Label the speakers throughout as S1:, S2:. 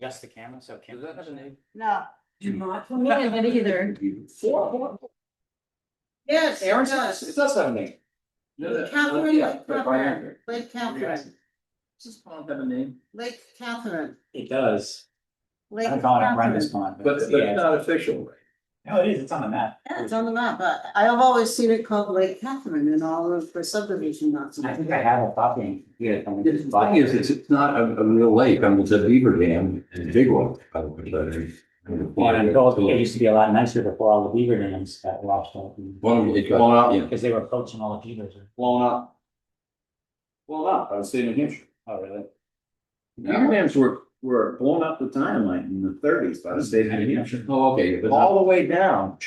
S1: Yes, the camera, so camera.
S2: No.
S3: Not for me, but either.
S2: Yes, it
S1: Aaron says
S2: does.
S1: it does have a name.
S2: Catherine
S4: Yeah,
S2: Lake
S4: but by
S2: Catherine,
S4: Andrew.
S2: Lake
S4: Yes.
S2: Catherine,
S4: Does pond have a name?
S2: Lake Catherine,
S1: It does.
S2: Lake
S1: I call it Brenda's
S2: Catherine.
S1: pond.
S4: But but it's not official, right?
S1: No, it is, it's on the map.
S2: Yeah, It's on the map, but I have always seen it called Lake Catherine in all of the subdivision maps.
S1: I think I have a copy here. I'm
S4: The
S1: gonna just buy
S4: thing is, it's,
S1: it.
S4: it's not a, a real lake, I mean, it's a beaver dam, it's a big one. by the way, but it's-
S1: Well, and it was- it used to be a lot nicer before all the beaver dams got washed out.
S4: One of them, it got, yeah.
S1: Because they were poaching all the beavers.
S5: blown up. Blown up, I was in New Hampshire.
S1: Oh, really?
S5: Beaver dams were, were blown up with dynamite in the thirties by the state of New Hampshire,
S4: Oh, okay, but not-
S5: all the way down.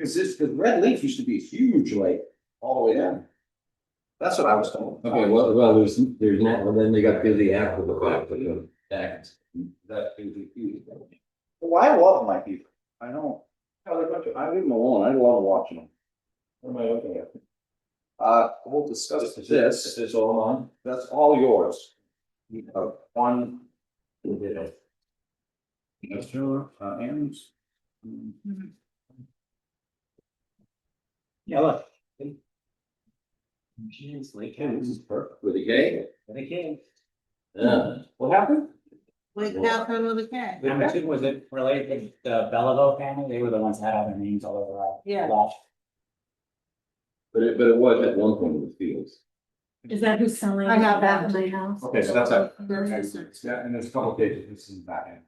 S5: Cause this, cause Red Lake used to be a huge lake, all the way down. That's what I was told.
S4: okay, well, well, there's, there's not, well, then they got busy after the fact, but the act. That is a huge.
S5: Well, I love my beaver, I don't, I live up to- I leave them alone, I love watching them. What am I looking at? Uh, we'll discuss this,
S4: is all on.
S5: that's all yours. Uh, one. we did it. Industrial, uh, Aaron's. Mm.
S1: Yeah, look. Lake
S5: Yeah,
S1: House.
S5: this is perfect.
S4: With a K?
S1: They came.
S4: Yeah.
S5: What happened?
S2: Lake Catherine with a K.
S1: Number two, was it related to the Belleville family? They were the ones that had all their names all over our.
S2: Yeah.
S1: lot.
S4: But it, but it was at one point with fields.
S3: Is that who's selling?
S2: I got that.
S3: My house.
S5: Okay, so that's a.
S2: There's a-
S5: Yeah, and there's a couple pages, this is back end.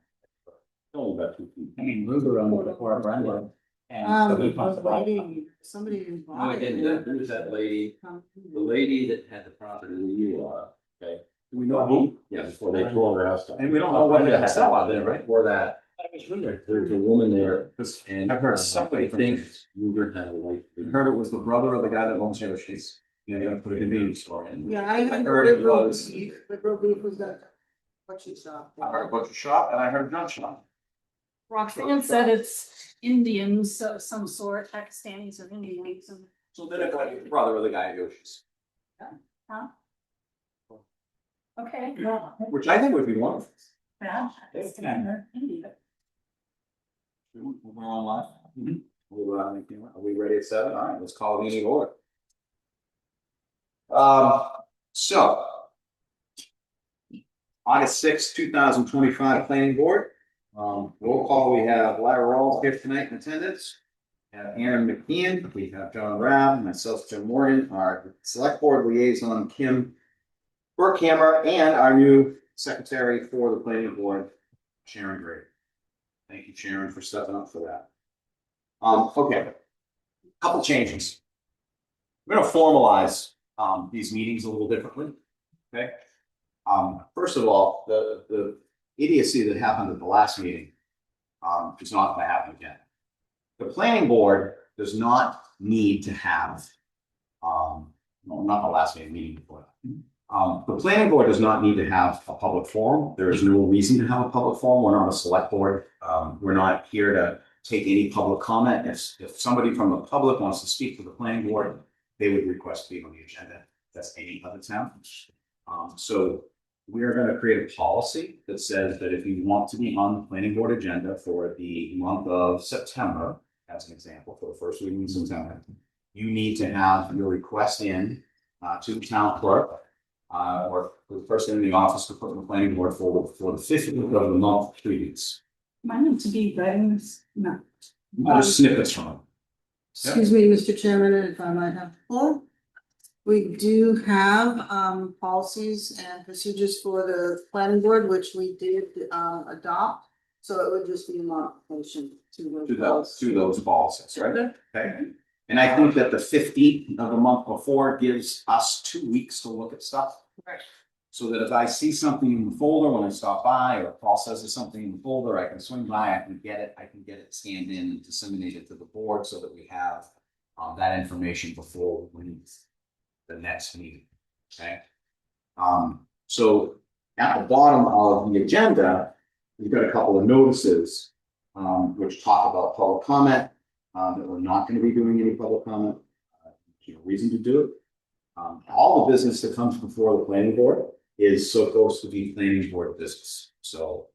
S5: Only about two feet.
S1: I mean, Ruger owned it before Brenda. And.
S2: Um,
S1: Somebody bought the lot.
S2: lady, somebody who
S4: No,
S2: bought
S4: it
S2: it.
S4: didn't, That- there was that lady,
S2: Um,
S4: the lady that had the property that you are, okay?
S5: Do we know who?
S4: Yeah, before they tore her house down.
S5: And we don't know what it
S4: Brenda
S5: is.
S4: had that lot there, right? Or that,
S1: But it was Ruger.
S4: there was a woman there
S5: Because
S4: and. uh,
S5: I've heard somebody
S4: I
S5: from
S4: think
S5: Phoenix.
S4: Ruger had a wife.
S5: I heard it was the brother of the guy that owns Taylor Sheets. Yeah, you gotta put it in the store. and-
S2: Yeah, I.
S5: I heard it
S2: liberal
S5: was-
S2: beef- Liberal beef was that. What you saw.
S5: I heard butcher shop and I heard gun shop.
S3: Roxanne said it's Indians of some sort, Pakistanis or Indians. and-
S5: So then it got the brother of the guy at Yoshi's,
S3: Okay, well,
S5: which I think would be wonderful.
S3: that- that's different. India.
S5: We're on live. uh, We're on, you know, are we ready at seven? All right, let's call the meeting to order. Um, so. August sixth, two thousand twenty-five, planning board. Um, roll call, we have Larry Rawls here tonight in attendance. We Have Aaron McKeon, we have John Rab, myself, Jim Morgan, our select board liaison, Kim. Burkhammer, and our new secretary for the planning board, Sharon Gray. Thank you, Sharon, for stepping up for that. Um, okay. Couple changes. We're gonna formalize, um, these meetings a little differently. Okay? Um, first of all, the, the idiocy that happened at the last meeting, um, is not gonna happen again. The planning board does not need to have, um, no, not the last meeting, meeting before. that. Um, the planning board does not need to have a public forum. There is no reason to have a public forum. We're not a select board. Um, we're not here to take any public comment. If, if somebody from the public wants to speak to the planning board, they would request to be on the agenda. That's any other town. Um, so we are gonna create a policy that says that if you want to be on the planning board agenda for the month of September, as an example, for the first week in September, you need to have your request in, uh, to the town clerk, uh, or the person in the office to put in the planning board for, for the fifteenth of the month, three weeks.
S3: Mine to be guidance, no.
S5: Just snippets from it.
S2: Excuse me, Mr. Chairman, and if I might have the floor. We do have um policies and procedures for the planning board, which we did um adopt. So it would just be a modification to those.
S5: To those,
S2: policies.
S5: to those policies, right? Okay, and I think that the fifteenth of the month before gives us two weeks to look at stuff.
S2: Right.
S5: So that if I see something in the folder when I stop by, or Paul says there's something in the folder, I can swing by, I can get it, I can get it scanned in and disseminate it to the board so that we have. Um, that information before we leave the next meeting, okay? Um, so at the bottom of the agenda, we've got a couple of notices. Um, which talk about public comment, um, that we're not gonna be doing any public comment. uh, No reason to do it. Um, all the business that comes before the planning board is so close to be planning board business. So